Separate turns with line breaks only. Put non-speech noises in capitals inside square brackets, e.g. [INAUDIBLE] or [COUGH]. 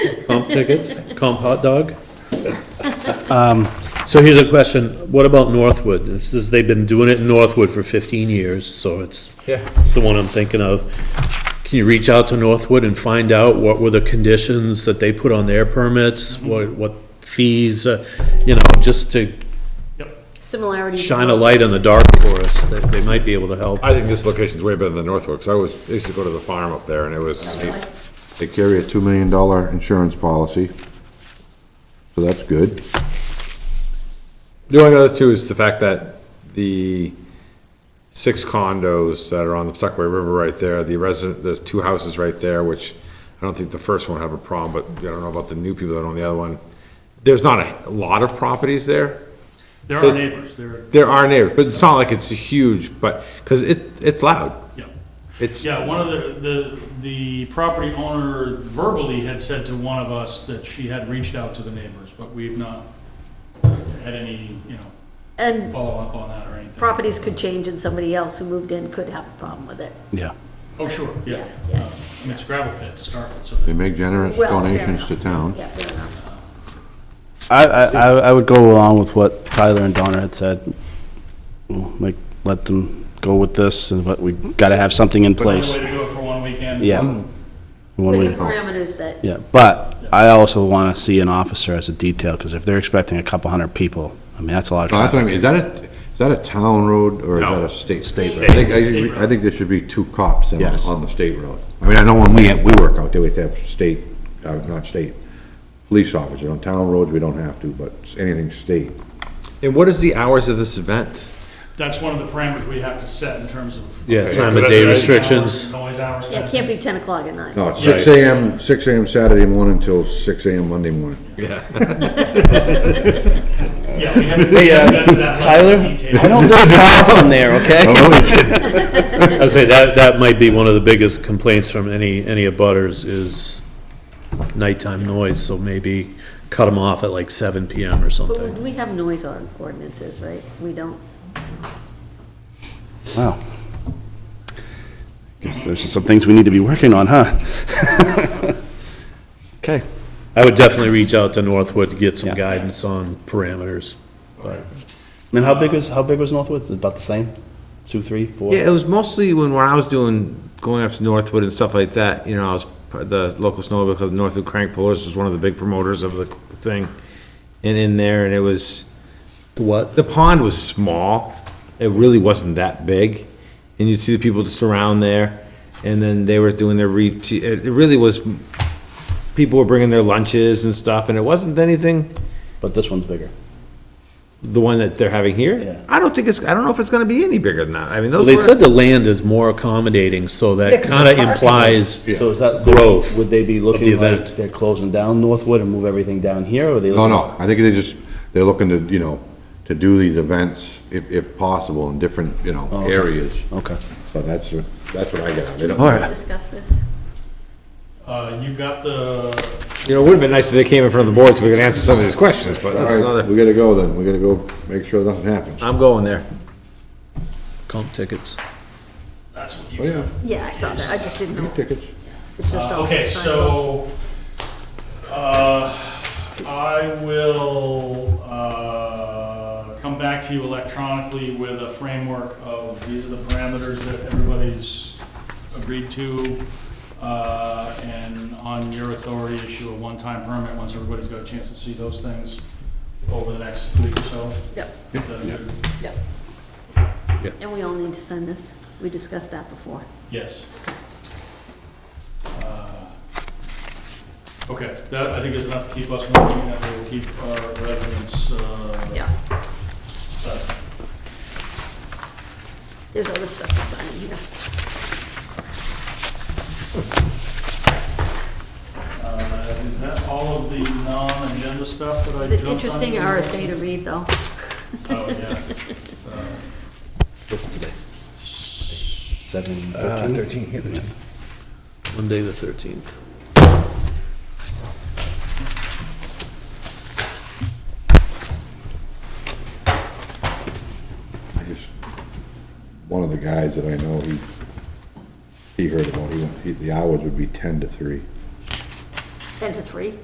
comp tickets, comp hot dog. Um, So here's a question, what about Northwood? This is, they've been doing it in Northwood for fifteen years, so it's,
Yeah.
it's the one I'm thinking of. Can you reach out to Northwood and find out what were the conditions that they put on their permits? What, what fees, uh, you know, just to
Similarity. to
shine a
what-
light on the dark for us, that they might be able to help.
I think this location's way better than Northwood, because I was, I used to go to the farm up there, and it was,
They carry a $2 million insurance policy, so that's good.
the only other two is the fact that the six condos that are on the Pawtucket River right there, the resident, there's two houses right there, which I don't think the first one have a problem, but I don't know about the new people that own the other one. There's not a lot of properties there.
There are neighbors, there,
There are neighbors, but it's not like it's huge, but, because it, it's loud.
yeah.
It's,
Yeah, one of the, the, the property owner verbally had said to one of us that she had reached out to the neighbors, but we've not had any, you know,
And
follow-up on that or anything.
properties could change and somebody else who moved in could have a problem with it.
Yeah.
Oh, sure, yeah.
Yeah, yeah.
Uh, I mean, it's gravel pit to start with, so.
They make generous
Well, fair
donations to
enough.
town.
Yeah, fair enough.
I, I, I I would go along with what Tyler and Donna had said. Like, let them go with this, and but we gotta have something in
Only
place.
way to do it for one weekend.
Yeah. When
With
we,
the parameters that,
yeah, but I also wanna see an officer as a detail, because if they're expecting a couple hundred people, I mean, that's a lot of
No, That's what I mean, is
traffic.
that a, is that a town road or is that a state?
State
I think, I I think there should be two cops on,
Yes.
on the state road. I mean, I know when we, we work out there, we have state, uh, not state, police officer. On town roads, we don't have to, but anything state.
and what is the hours of this event?
That's one of the parameters we have to set in terms of.
Yeah,
Okay.
time of
Yeah,
day
yeah.
restrictions.
Noise hours.
yeah, it can't be 10 o'clock at night.
No, it's six AM, six AM Saturday morning till six AM Monday
[LAUGHS]
morning.
Yeah, we haven't. Hey,
uh,
Tyler, I don't live far from there,
oh,
okay?
I'd say that, that might be one of the biggest complaints from any, any of butters is nighttime noise, so maybe cut them off at like seven PM or
[LAUGHS] But
something.
we have noise or- ordinances, right? We don't.
[LAUGHS] Wow. Guess there's just some things we need to be working on, huh? [LAUGHS] Okay.
I would definitely reach out to Northwood to get some
Yeah.
guidance on parameters, but
I mean, how big was, how big was Northwoods? About the same? Two, three, four?
Yeah, it was mostly when, when I was doing, going up to Northwood and stuff like that, you know, I was, part of the local snow, because Northwood Crank Pullers was one of the big promoters of the thing. And in there, and it was,
what?
the pond was small. It really wasn't that big. And you'd see the people just around there, and then they were doing their re, it it really was, people were bringing their lunches and stuff, and it wasn't anything,
But this one's bigger.
the one that they're having
Yeah.
here. I don't think it's, I don't know if it's gonna be any bigger than that. I mean, those
They said
were,
the land is more accommodating, so
Yeah,
that
'cause the
kinda
parking
implies,
So is that
Growth
growth? Would they be looking like
event.
they're closing down Northwood and move everything down here, or are they?
No,
looking-
no, I think they just, they're looking to, you know, to do these events if, if possible in different, you know,
okay.
areas.
Okay.
So that's, what- that's what I got. They don't-
All right.
Discuss this.
Uh, you got the
you know, it would've been nice if they came in front of the board so we could answer some of these questions, but that's
All right,
another,
we gotta go then. We gotta go make sure nothing happens.
I'm going there.
comp tickets.
That's what
Oh,
you
yeah,
Yeah, I saw that. I just didn't know.
tickets.
It's just all.
Uh, Okay,
signed up.
so, uh, I will, uh, come back to you electronically with a framework of, these are the parameters that everybody's agreed to, uh, and on your authority, issue a one-time permit once everybody's got a chance to see those things over the next week or so.
Yep,
Is that good?
yep.
Yeah.
And we all need to sign this. We discussed that before.
Yes. Uh, Okay, that, I think is enough to keep us moving, and we'll keep our residents, uh,
Yeah.
satisfied.
There's other stuff to sign in here.
Uh, is that all of the non-agenda stuff that I
It's
jumped
an
on?
interesting RSA to read, though. [LAUGHS]
Oh, yeah.
Seven, thirteen?
Monday the thirteenth.
I just, one of the guys that I know, he, he heard about, he, went- he, the hours would be ten to three.
10 to 3.